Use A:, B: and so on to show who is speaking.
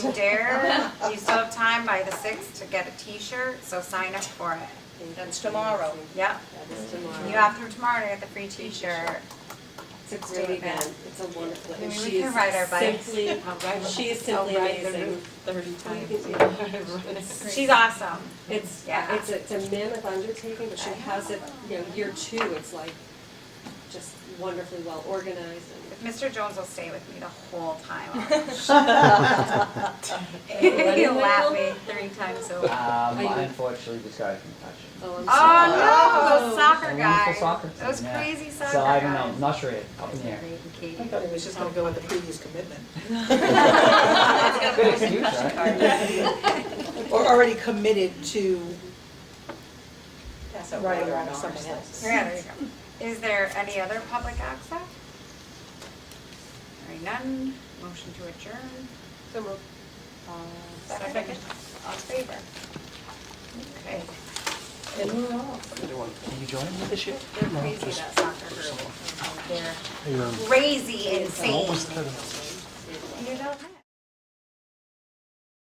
A: dare, you still have time by the sixth to get a T-shirt, so sign up for it.
B: That's tomorrow.
A: Yep,
C: That is tomorrow.
A: you have through tomorrow to get the free T-shirt.
C: It's a great event, it's a wonderful,
A: Maybe
C: and
A: we
C: she
A: can
C: is
A: ride our bikes.
C: simply, oh, she is simply amazing.
D: Thirty times.
A: She's awesome.
C: It's,
A: Yeah.
C: it's, a- it's a mammoth undertaking, but she has it, you know, year two, it's like just wonderfully well organized
A: If Mr. Jones will stay with me the whole time. He'll laugh me three times over.
E: Um,
C: Are you-
E: unfortunately, this guy's concussion.
C: and, oh, I'm sorry.
A: Oh no, those soccer
E: Wonderful
A: guys,
E: soccer team,
A: those
E: yeah.
A: crazy soccer guys.
E: So I don't know, I'm not sure yet, up in the air.
B: I thought he was just gonna go with the previous commitment.
E: Good excuse, right?
B: Or already committed to riding around with someone else.
A: Yeah, there you go. Is there any other public access? Hearing none, motion to adjourn. So Second, all in favor? Okay,
F: Can you join me this year?
A: they're crazy, that soccer group. They're crazy insane.
F: What was the tournament?